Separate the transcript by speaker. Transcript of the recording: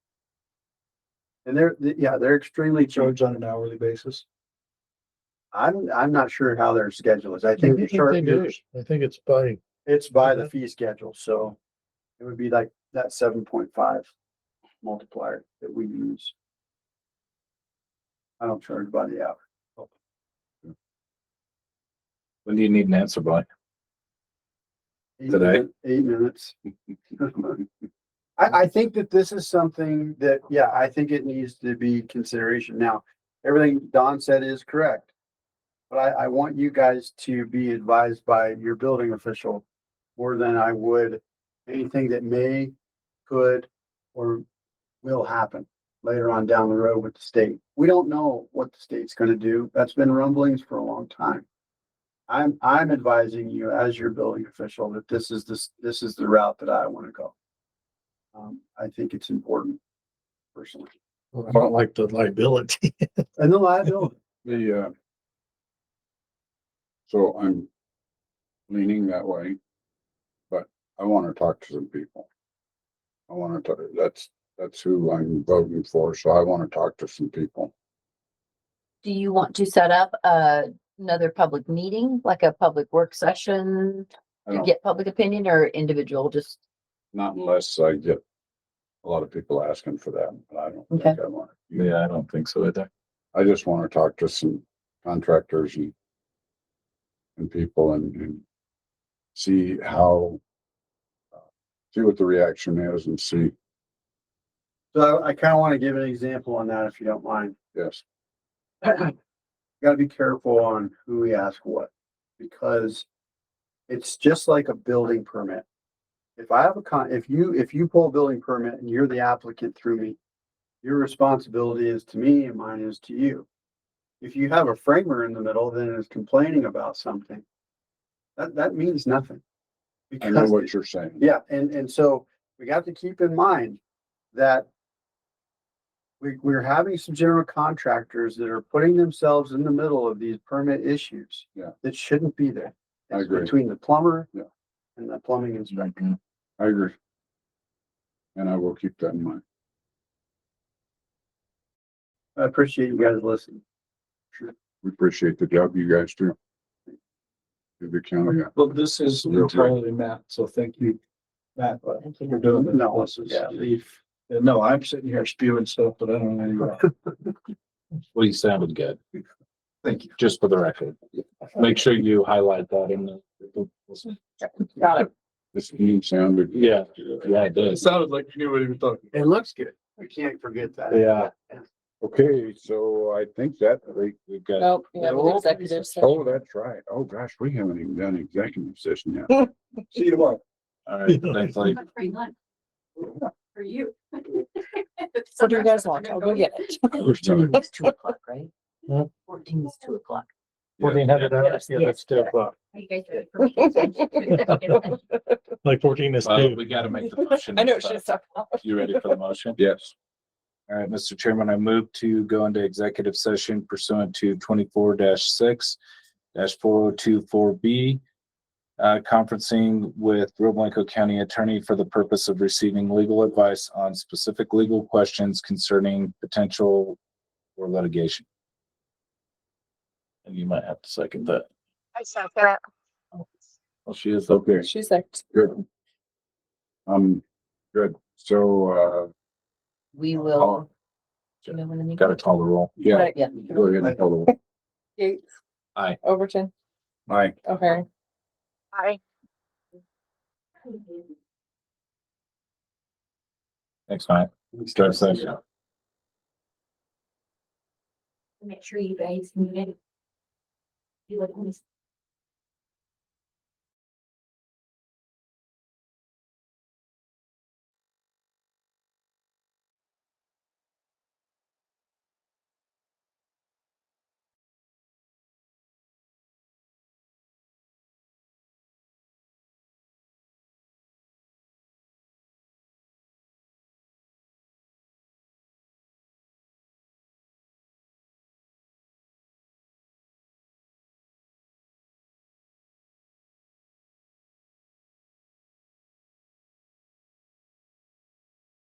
Speaker 1: And they're, th- yeah, they're extremely cheap.
Speaker 2: charge on an hourly basis.
Speaker 1: I'm, I'm not sure how their schedule is. I think they charge,
Speaker 2: I think it's by,
Speaker 1: it's by the fee schedule, so it would be like that seven point five multiplier that we use. I don't charge by the hour.
Speaker 3: When do you need an answer by?
Speaker 1: Eight
Speaker 3: Today?
Speaker 1: minute- Eight minutes. I, I think that this is something that, yeah, I think it needs to be consideration. Now, everything Don said is correct. But I, I want you guys to be advised by your building official more than I would anything that may, could, or will happen later on down the road with the state. We don't know what the state's gonna do. That's been rumblings for a long time. I'm, I'm advising you as your building official that this is this, this is the route that I want to go. Um, I think it's important personally.
Speaker 2: I don't like the liability.
Speaker 1: And the liability,
Speaker 4: The, uh, so I'm leaning that way, but I want to talk to some people. I want to, that's, that's who I'm voting for, so I want to talk to some people.
Speaker 5: Do you want to set up a, another public meeting, like a public work session
Speaker 4: I
Speaker 5: to
Speaker 4: don't,
Speaker 5: get public opinion or individual, just,
Speaker 4: not unless I get a lot of people asking for that, but I don't think I want. to.
Speaker 3: Yeah, I don't think so either.
Speaker 4: I just want to talk to some contractors and and people and, and see how uh, see what the reaction is and see,
Speaker 1: so I kind of want to give an example on that if you don't mind.
Speaker 4: yes.
Speaker 1: Gotta be careful on who we ask what, because it's just like a building permit. If I have a con, if you, if you pull a building permit and you're the applicant through me, your responsibility is to me and mine is to you. If you have a framer in the middle that is complaining about something, that, that means nothing.
Speaker 4: I know
Speaker 1: Because
Speaker 4: what you're saying.
Speaker 1: Yeah, and, and so we got to keep in mind that we, we're having some general contractors that are putting themselves in the middle of these permit issues.
Speaker 4: Yeah.
Speaker 1: That shouldn't be there.
Speaker 4: I
Speaker 1: It's
Speaker 4: agree.
Speaker 1: Between the plumber.
Speaker 4: Yeah.
Speaker 1: And the plumbing
Speaker 2: Mm-hmm.
Speaker 1: inspector.
Speaker 4: I agree. And I will keep that in mind.
Speaker 1: I appreciate you guys listening.
Speaker 4: We appreciate the job you guys do. Give the county, a-
Speaker 2: Well, this is
Speaker 4: Real quick.
Speaker 2: Matt, so thank you, Matt,
Speaker 5: thank you.
Speaker 2: doing
Speaker 1: this. No, This is- yeah.
Speaker 2: leaf. No, I'm sitting here spewing stuff, but I don't know.
Speaker 3: Well, you sounded good,
Speaker 2: Thank you.
Speaker 3: just for the record. Make sure you highlight that in the. Got it.
Speaker 4: this team sounded.
Speaker 3: Yeah, yeah, it does.
Speaker 2: sounded like you knew what he was talking.
Speaker 1: It looks good. We can't forget that.
Speaker 3: Yeah.
Speaker 4: Okay, so I think that, we-
Speaker 3: We've got,
Speaker 5: Nope, Oh, we have an executive session.
Speaker 4: oh, that's right. Oh, gosh, we haven't even done executive session yet.
Speaker 2: See you tomorrow.
Speaker 3: all right, thanks, like,
Speaker 6: Free lunch. For you.
Speaker 5: So do you guys want? I'll go get it.
Speaker 4: Fourteen
Speaker 5: It's two o'clock, right?
Speaker 2: Hmm?
Speaker 5: Fourteen is two o'clock.
Speaker 2: Fourteen hundred hours, yeah, that's two o'clock.
Speaker 6: You guys do it for me.
Speaker 2: Like fourteen is
Speaker 3: uh, we gotta make the motion.
Speaker 5: I know it should stop.
Speaker 3: You ready for the motion?
Speaker 4: Yes,
Speaker 3: All right, Mr. Chairman, I move to go into executive session pursuant to twenty-four six four oh two four B. Uh, conferencing with Rio Blanco County Attorney for the purpose of receiving legal advice on specific legal questions concerning potential or litigation. And you might have to second that.
Speaker 7: I saw that.
Speaker 3: Well, she is the
Speaker 4: okay,
Speaker 5: She's like,
Speaker 4: good. Um, good. So,
Speaker 5: we
Speaker 4: uh,
Speaker 5: will.
Speaker 4: I'll-
Speaker 5: do you know when the meeting-
Speaker 3: got to call the roll.
Speaker 4: yeah,
Speaker 5: Yeah.
Speaker 4: go ahead and call the.
Speaker 5: Gates.
Speaker 3: Aye.
Speaker 5: Overton,
Speaker 4: Aye.
Speaker 5: O'Hare.
Speaker 7: Hi.
Speaker 3: Thanks, Mike. Start session.
Speaker 6: Make sure you guys mute it. You like,